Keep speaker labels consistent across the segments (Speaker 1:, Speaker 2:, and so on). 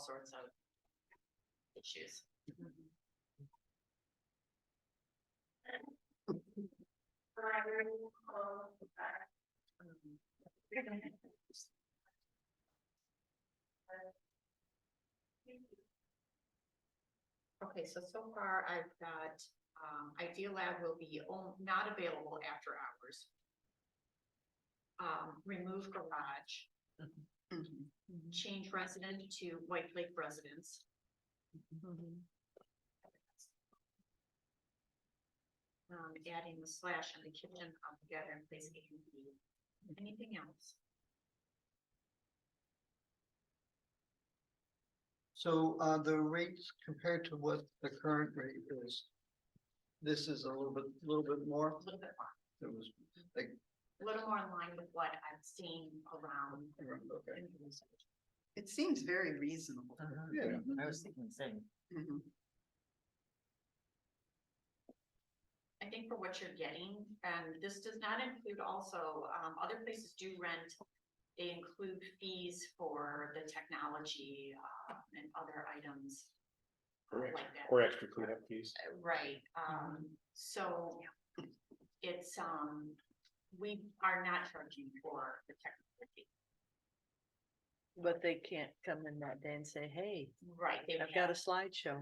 Speaker 1: sorts of issues. Okay, so so far I've got, um, Idea Lab will be on- not available after hours. Um, remove garage, Mm-hmm. change resident to White Lake residents. Um, adding the slash and the kitchen come together and place A and B. Anything else?
Speaker 2: So uh the rates compared to what the current rate is. This is a little bit, little bit more,
Speaker 1: A little bit more,
Speaker 2: it was,
Speaker 1: a little more in line with what I've seen around.
Speaker 2: okay.
Speaker 1: in the research.
Speaker 3: It seems very reasonable.
Speaker 1: Uh-huh.
Speaker 2: Yeah,
Speaker 1: Mm-hmm.
Speaker 4: I was thinking the same.
Speaker 3: Mhm.
Speaker 1: I think for what you're getting, and this does not include also, um, other places do rent. They include fees for the technology, uh, and other items
Speaker 5: Or ex-
Speaker 1: like that.
Speaker 5: or extra cleanup fees.
Speaker 1: Right, um, so it's, um, we are not charging for the technology.
Speaker 6: But they can't come in that day and say, hey,
Speaker 1: Right, they
Speaker 6: I've got a
Speaker 1: have,
Speaker 6: slideshow.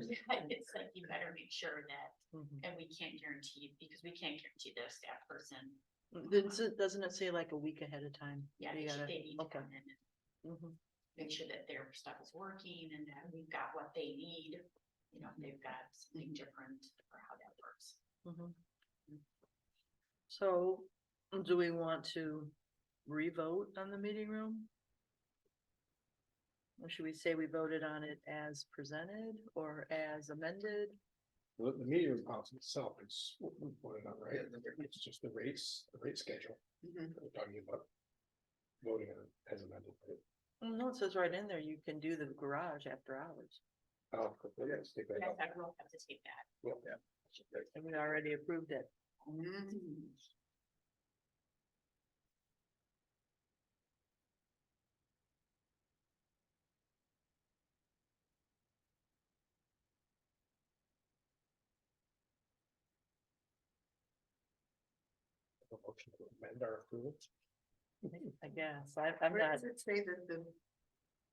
Speaker 1: it's like you better make sure that,
Speaker 6: Mhm.
Speaker 1: and we can't guarantee, because we can't guarantee their staff person.
Speaker 6: Doesn't, doesn't it say like a week ahead of time?
Speaker 1: Mm-hmm. Yeah,
Speaker 6: You
Speaker 1: they should-
Speaker 6: gotta-
Speaker 1: they need to
Speaker 6: okay.
Speaker 1: come in and
Speaker 6: Mhm.
Speaker 1: make sure that their stuff is working and that we've got what they need. You know, if they've got something
Speaker 6: Mm-hmm.
Speaker 1: different or how that works.
Speaker 6: Mhm. So, do we want to re-vote on the meeting room? Or should we say we voted on it as presented or as amended?
Speaker 5: The, the meeting room policy itself is, what we voted on, right? It's just the rates, the rate schedule.
Speaker 3: Mhm.
Speaker 5: that We're talking about voting on it as amended. right?
Speaker 6: Mm, No, it says right in there, you can do the garage after hours.
Speaker 5: Oh, yeah, let's take that
Speaker 1: Yes,
Speaker 5: out.
Speaker 1: I will have to take that.
Speaker 5: Yeah, yeah.
Speaker 6: And we already approved it.
Speaker 3: Mhm.
Speaker 5: A motion to amend our approval.
Speaker 6: I guess, I, I'm
Speaker 3: Where
Speaker 6: not,
Speaker 3: does it say that the?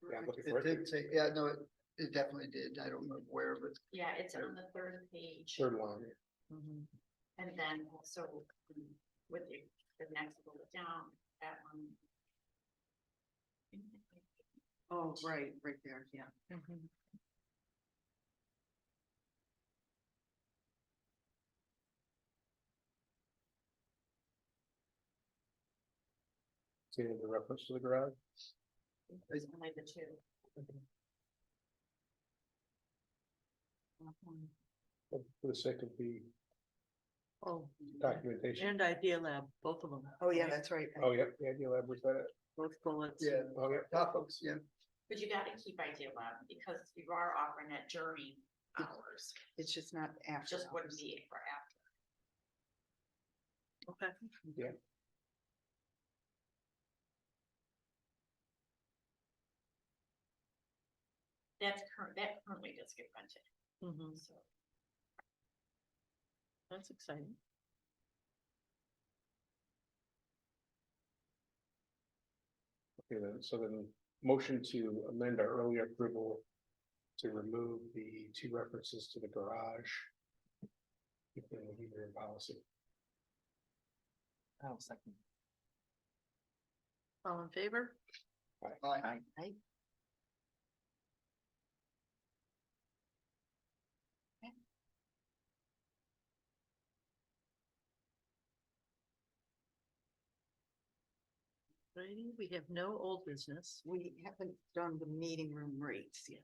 Speaker 5: Yeah, I'm looking for
Speaker 2: It did
Speaker 5: it.
Speaker 2: say, yeah, no, it it definitely did, I don't know where, but
Speaker 1: Yeah, it's on the third page
Speaker 5: Third line.
Speaker 6: Mhm.
Speaker 1: and then also um, with the, the next bullet down, that one.
Speaker 3: Oh, right, right there, yeah.
Speaker 6: Mhm.
Speaker 5: See the reference to the garage?
Speaker 1: There's only the two. Mhm.
Speaker 5: For the sake of the
Speaker 6: oh,
Speaker 5: documentation.
Speaker 6: and Idea Lab, both of them.
Speaker 3: Oh, yeah, that's right.
Speaker 5: Oh, yeah, yeah, you have, was that it?
Speaker 6: Both bullets.
Speaker 2: yeah,
Speaker 5: Oh, yeah.
Speaker 2: top folks, yeah.
Speaker 1: But you gotta keep idea lab because you are offering that during hours,
Speaker 3: It's just not after.
Speaker 1: just wouldn't
Speaker 3: hours.
Speaker 1: be for after.
Speaker 6: Okay.
Speaker 5: Yeah.
Speaker 1: That's current, that currently does get rented,
Speaker 6: Mhm.
Speaker 1: so.
Speaker 6: That's exciting.
Speaker 5: Okay, then, so then, motion to amend our earlier approval to remove the two references to the garage. Within the meeting room policy,
Speaker 4: I'll second.
Speaker 6: All in favor?
Speaker 2: Aye.
Speaker 6: Righty, we have no old business.
Speaker 3: We haven't done the meeting room rates yet.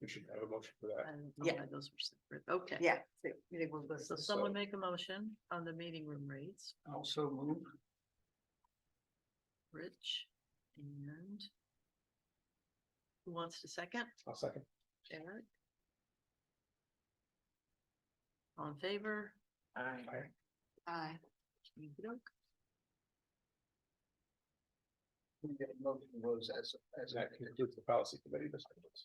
Speaker 5: we should have a motion for that,
Speaker 6: And oh,
Speaker 3: Yeah.
Speaker 6: yeah, those were separate. Okay.
Speaker 3: Yeah, they, they were listed.
Speaker 6: So someone make a motion on the meeting room rates,
Speaker 2: Also move,
Speaker 6: Rich and who wants to second?
Speaker 5: I'll second,
Speaker 6: Eric? All in favor?
Speaker 4: Aye.
Speaker 5: Aye.
Speaker 3: Aye.
Speaker 6: Okey-doke.
Speaker 2: we get a motion was as as
Speaker 5: that concludes the policy committee discussions.